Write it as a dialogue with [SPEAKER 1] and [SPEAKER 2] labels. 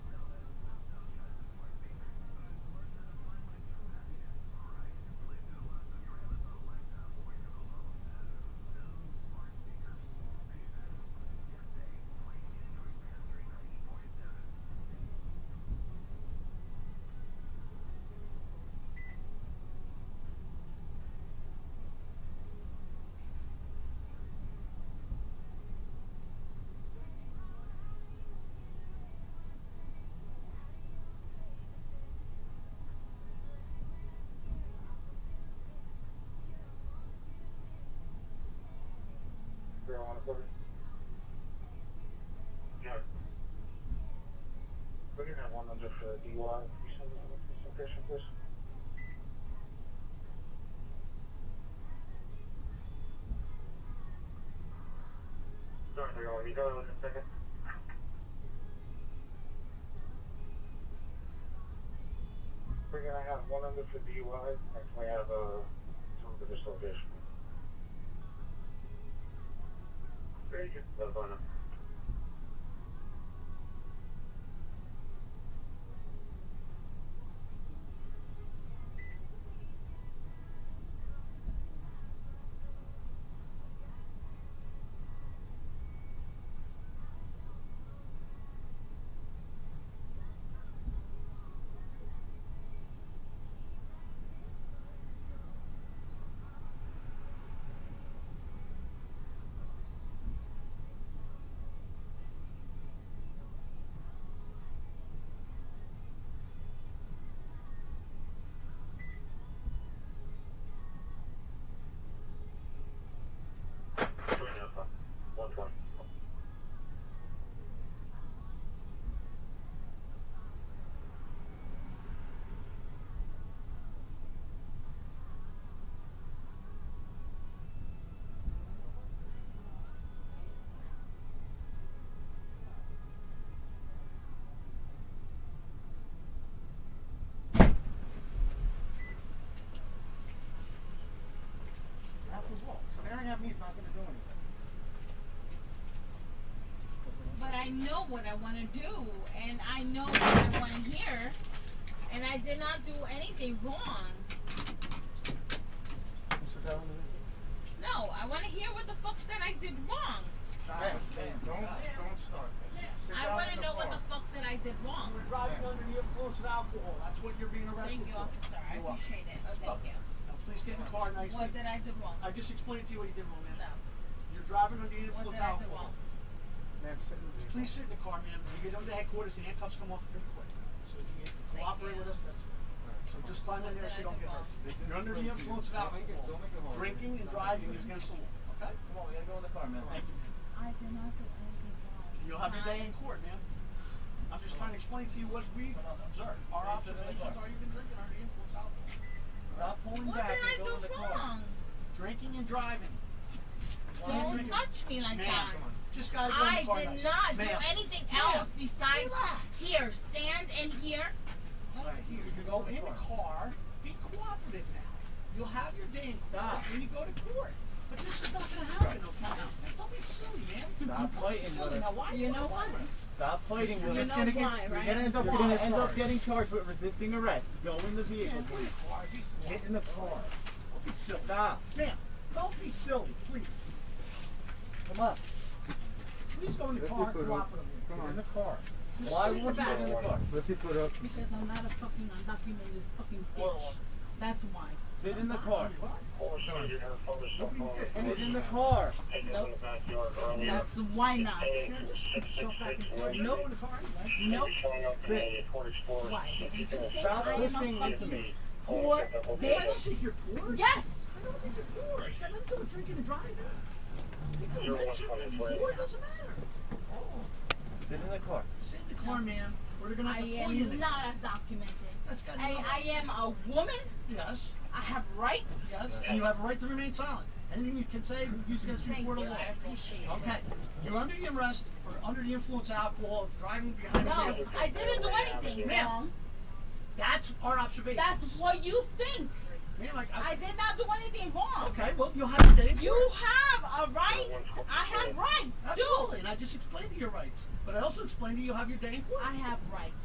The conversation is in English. [SPEAKER 1] under the DUI investigation, please? Sorry, they're going, you go in a second. We're gonna have one under for DUI, and we have, uh, some for disorganization. Very good, that's on them. One twenty.
[SPEAKER 2] Apple's what? Staring at me is not gonna do anything.
[SPEAKER 3] But I know what I want to do, and I know what I want to hear, and I did not do anything wrong.
[SPEAKER 2] Mr. Dillon,
[SPEAKER 3] No, I want to hear what the fuck that I did wrong.
[SPEAKER 2] Ben, Ben, don't, don't start this. Sit
[SPEAKER 3] I
[SPEAKER 2] down
[SPEAKER 3] want
[SPEAKER 2] in
[SPEAKER 3] to
[SPEAKER 2] the
[SPEAKER 3] know what
[SPEAKER 2] car.
[SPEAKER 3] the fuck that I did wrong.
[SPEAKER 4] We're driving under the influence of alcohol. That's what you're being arrested
[SPEAKER 3] Thank you,
[SPEAKER 4] for.
[SPEAKER 3] officer.
[SPEAKER 4] You're
[SPEAKER 3] I
[SPEAKER 4] welcome.
[SPEAKER 3] appreciate it. Oh, thank you.
[SPEAKER 4] Now, please get in the car nicely.
[SPEAKER 3] What did I do wrong?
[SPEAKER 4] I just explained to you what you did, my man.
[SPEAKER 3] No.
[SPEAKER 4] You're driving under the
[SPEAKER 3] What
[SPEAKER 4] influence of
[SPEAKER 3] did I do
[SPEAKER 4] alcohol.
[SPEAKER 3] wrong?
[SPEAKER 2] Ma'am, sit in the
[SPEAKER 4] Please sit in the car, ma'am. When you get under headquarters, the handcuffs come off pretty quick. So if you can
[SPEAKER 3] Thank
[SPEAKER 4] cooperate
[SPEAKER 3] you.
[SPEAKER 4] with us, that's So just climb in there so you don't get hurt.
[SPEAKER 5] They do
[SPEAKER 4] You're under the
[SPEAKER 5] explain to
[SPEAKER 4] influence
[SPEAKER 5] you.
[SPEAKER 4] of
[SPEAKER 5] Don't make it-
[SPEAKER 4] alcohol.
[SPEAKER 5] don't make it hard.
[SPEAKER 4] Drinking and
[SPEAKER 5] Don't
[SPEAKER 4] driving
[SPEAKER 5] make it
[SPEAKER 4] is against the law, okay?
[SPEAKER 5] Come on, we gotta go in the car, man.
[SPEAKER 4] Thank you.
[SPEAKER 3] I did not do anything wrong.
[SPEAKER 4] You'll have your day in
[SPEAKER 3] Fine.
[SPEAKER 4] court, man. I'm just trying to explain to you what we observed. Our
[SPEAKER 5] Please sit in
[SPEAKER 4] observations
[SPEAKER 5] the car.
[SPEAKER 4] are you've been drinking under the influence of alcohol.
[SPEAKER 5] Stop pulling
[SPEAKER 3] What
[SPEAKER 5] back
[SPEAKER 3] did I
[SPEAKER 5] and go in the
[SPEAKER 3] do
[SPEAKER 5] car.
[SPEAKER 3] wrong?
[SPEAKER 4] Drinking and driving.
[SPEAKER 3] Don't
[SPEAKER 4] Drinking.
[SPEAKER 3] touch me like
[SPEAKER 4] Ma'am,
[SPEAKER 3] that.
[SPEAKER 4] come on. Just gotta go in
[SPEAKER 3] I
[SPEAKER 4] the car
[SPEAKER 3] did
[SPEAKER 4] nicely.
[SPEAKER 3] not do
[SPEAKER 4] Ma'am.
[SPEAKER 3] anything
[SPEAKER 4] Ma'am.
[SPEAKER 3] else besides here, stand and here.
[SPEAKER 4] Alright, you can go in the car, be cooperative now. You'll have your day in court
[SPEAKER 5] Stop.
[SPEAKER 4] when you go to court. But this is not gonna happen, okay? Don't be silly, man.
[SPEAKER 5] Stop
[SPEAKER 4] Don't be
[SPEAKER 5] fighting
[SPEAKER 4] silly.
[SPEAKER 5] with
[SPEAKER 4] Now,
[SPEAKER 5] us.
[SPEAKER 4] why?
[SPEAKER 3] You know what?
[SPEAKER 5] Stop fighting with
[SPEAKER 3] You
[SPEAKER 5] us.
[SPEAKER 3] know
[SPEAKER 5] You're
[SPEAKER 3] why, right?
[SPEAKER 5] gonna end up,
[SPEAKER 4] Why?
[SPEAKER 5] you're gonna end
[SPEAKER 4] Why?
[SPEAKER 5] up getting charged with resisting arrest. Go in the
[SPEAKER 4] Yeah,
[SPEAKER 5] vehicle,
[SPEAKER 4] go in
[SPEAKER 5] please.
[SPEAKER 4] the car. Be-
[SPEAKER 5] Get in the car.
[SPEAKER 4] Don't be silly.
[SPEAKER 5] Stop.
[SPEAKER 4] Ma'am, don't be silly, please.
[SPEAKER 5] Come on.
[SPEAKER 4] Please go in the
[SPEAKER 6] Let
[SPEAKER 4] car
[SPEAKER 6] me put
[SPEAKER 4] and
[SPEAKER 6] it
[SPEAKER 4] cooperate
[SPEAKER 6] Come
[SPEAKER 5] Get in the
[SPEAKER 6] on,
[SPEAKER 5] car.
[SPEAKER 4] Just
[SPEAKER 5] Why
[SPEAKER 4] sit
[SPEAKER 5] won't you
[SPEAKER 4] back.
[SPEAKER 5] get in the car?
[SPEAKER 6] let me put up.
[SPEAKER 3] Because I'm not a fucking undocumented fucking bitch. That's why.
[SPEAKER 5] Sit in the car.
[SPEAKER 1] Four seven, you're gonna focus on.
[SPEAKER 5] Get in the car.
[SPEAKER 3] Nope.
[SPEAKER 1] Backyard earlier.
[SPEAKER 3] That's why not.
[SPEAKER 4] Go in the car anyway.
[SPEAKER 3] Nope.
[SPEAKER 1] Showing up in a Cornish forest.
[SPEAKER 3] Why? Did you just say
[SPEAKER 5] Stop
[SPEAKER 3] I am a
[SPEAKER 5] pushing into
[SPEAKER 3] fucking
[SPEAKER 5] me.
[SPEAKER 3] poor
[SPEAKER 4] You guys
[SPEAKER 3] bitch?
[SPEAKER 4] think you're poor?
[SPEAKER 3] Yes.
[SPEAKER 4] I don't think you're poor. It's got nothing to do with drinking and driving. I think
[SPEAKER 1] You're
[SPEAKER 4] you're
[SPEAKER 1] one
[SPEAKER 4] rich or
[SPEAKER 1] fucking
[SPEAKER 4] poor,
[SPEAKER 1] player.
[SPEAKER 4] it doesn't matter. Oh,
[SPEAKER 5] Sit in the car.
[SPEAKER 4] Sit in the car, ma'am. We're gonna
[SPEAKER 3] I
[SPEAKER 4] have to pull you in.
[SPEAKER 3] am not undocumented.
[SPEAKER 4] That's got
[SPEAKER 3] I,
[SPEAKER 4] nothing-
[SPEAKER 3] I am a woman.
[SPEAKER 4] Yes,
[SPEAKER 3] I have rights.
[SPEAKER 4] yes, and you have a right to remain silent. Anything you can say, we use against you in
[SPEAKER 3] Thank
[SPEAKER 4] court of
[SPEAKER 3] you,
[SPEAKER 4] law.
[SPEAKER 3] I appreciate it.
[SPEAKER 4] Okay, you're under the arrest for under the influence of alcohol, driving behind
[SPEAKER 3] No,
[SPEAKER 4] the wheel.
[SPEAKER 3] I didn't do anything
[SPEAKER 4] Ma'am.
[SPEAKER 3] wrong.
[SPEAKER 4] That's our observation.
[SPEAKER 3] That's what you think.
[SPEAKER 4] Ma'am, I, I-
[SPEAKER 3] I did not do anything wrong.
[SPEAKER 4] okay, well, you'll have your day in
[SPEAKER 3] You
[SPEAKER 4] court.
[SPEAKER 3] have a right. I have rights. too.
[SPEAKER 4] Absolutely, and I just explained to you your rights, but I also explained to you you'll have your day in court.
[SPEAKER 3] I have rights.